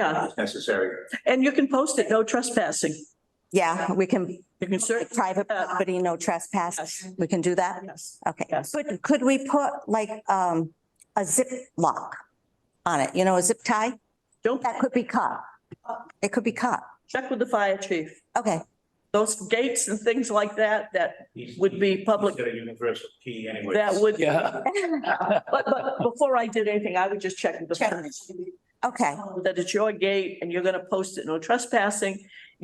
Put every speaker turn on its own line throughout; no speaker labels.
Yeah,
necessary.
and you can post it, no trespassing.
Yeah, we can,
You can certainly,
private property, no trespass.
uh, Yes.
We can do that?
yes.
Okay.
Yes.
But could we put like um a zip lock on it, you know, a zip tie?
Don't
That could be cut. It could be cut.
check with the fire chief.
Okay,
Those gates and things like that, that,
He's-
Would be
he's
public-
Got a universal key anyway.
that would,
Yeah.
but, but before I did anything, I would just check with the fire chief.
okay,
that it's your gate and you're gonna post it, no trespassing.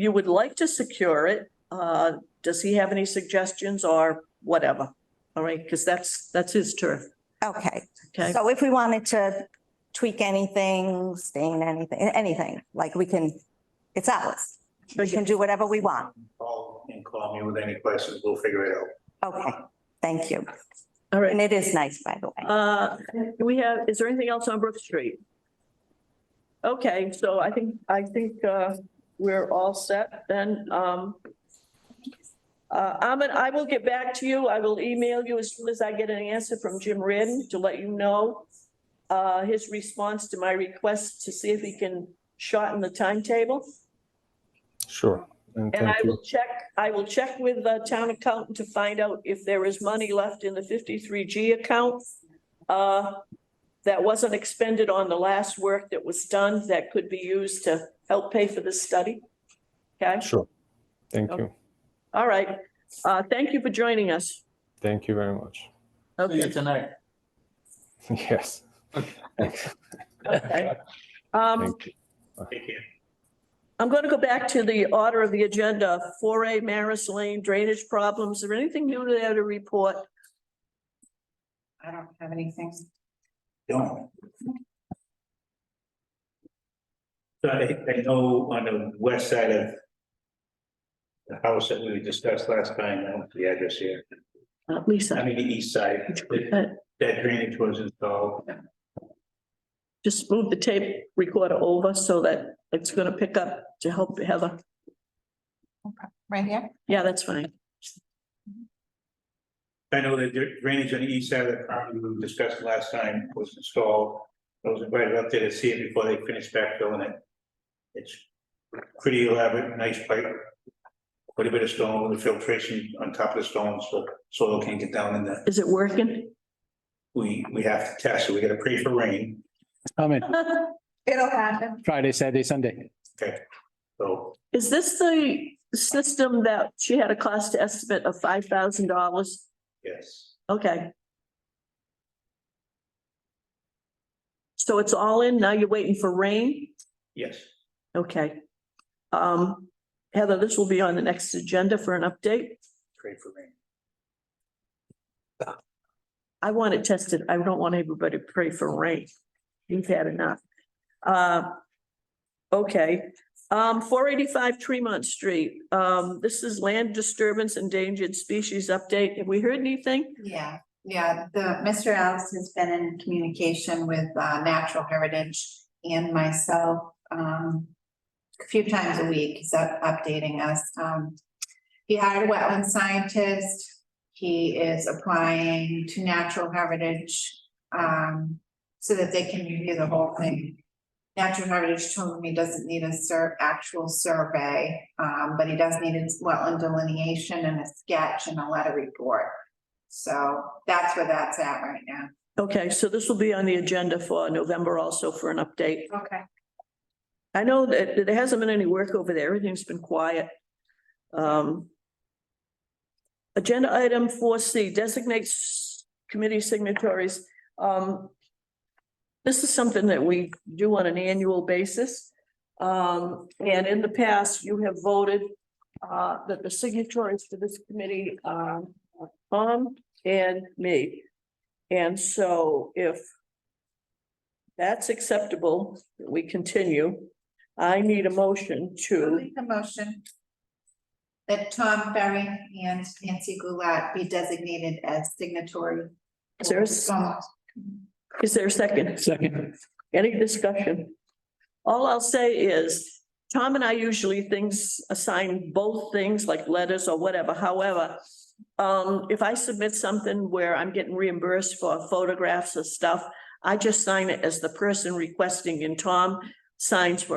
You would like to secure it. Uh, does he have any suggestions or whatever? All right, because that's, that's his turf,
okay.
okay?
So if we wanted to tweak anything, stain anything, anything, like we can, it's ours. We can do whatever we want.
Call and call me with any questions, we'll figure it out.
Okay, thank you.
All right.
And it is nice, by the way.
Uh, do we have, is there anything else on Brook Street? Okay, so I think, I think, uh, we're all set then, um. Uh, Ahmed, I will get back to you. I will email you as soon as I get an answer from Jim Reardon to let you know. Uh, his response to my request to see if he can shorten the timetable.
Sure. And
And I
thank you.
will check, I will check with the town accountant to find out if there is money left in the fifty-three G account. Uh, that wasn't expended on the last work that was done that could be used to help pay for this study. Okay,
Sure. Thank
Oh.
you.
all right. Uh, thank you for joining us.
Thank you very much.
See you tonight.
Yes. Thank
Okay. Um,
you.
Take care.
I'm going to go back to the order of the agenda, four A Maris Lane drainage problems. Is there anything new there to report?
I don't have anything.
Don't. So I, I know on the west side of the house that we discussed last time, I don't know the address here,
Uh,
I
Lisa,
mean, the east side, that
uh,
that drainage was installed.
just move the tape recorder over so that it's going to pick up to help Heather.
Right here?
Yeah, that's fine.
I know that the drainage on the east side of the property we discussed last time was installed. I was invited up there to see it before they finished backfilling it. It's pretty elaborate, nice pipe. Quite a bit of stone with filtration on top of the stone, so soil can't get down in there.
Is it working?
We, we have to test, so we gotta pray for rain,
I'm in
It'll happen.
Friday, Saturday, Sunday.
so.
Is this the system that she had a cost estimate of five thousand dollars?
Yes,
Okay. So it's all in, now you're waiting for rain?
yes,
Okay. Um, Heather, this will be on the next agenda for an update.
pray for rain.
I want it tested. I don't want everybody to pray for rain. We've had enough. Uh, okay, um, four eighty-five Tremont Street. Um, this is land disturbance endangered species update. Have we heard anything?
Yeah, yeah, the, Mr. Alice has been in communication with uh Natural Heritage and myself. Um, a few times a week, he's up- updating us. Um, he hired a wetland scientist. He is applying to Natural Heritage. Um, so that they can review the whole thing. Natural Heritage told him he doesn't need a sur- actual survey, um, but he does need a wetland delineation and a sketch and a letter report. So that's where that's at right now.
Okay, so this will be on the agenda for November also for an update.
Okay.
I know that there hasn't been any work over there. Everything's been quiet. Um. Agenda item four C designates committee signatories. Um. This is something that we do on an annual basis. Um, and in the past, you have voted uh that the signatories for this committee um are Tom and me. And so if that's acceptable, we continue. I need a motion
I'll
to,
make a motion that Tom Ferry and Nancy Goulat be designated as signatory.
Is there a s- is there a second?
Second.
Any discussion? All I'll say is, Tom and I usually things, assign both things like letters or whatever, however. Um, if I submit something where I'm getting reimbursed for photographs or stuff, I just sign it as the person requesting and Tom signs for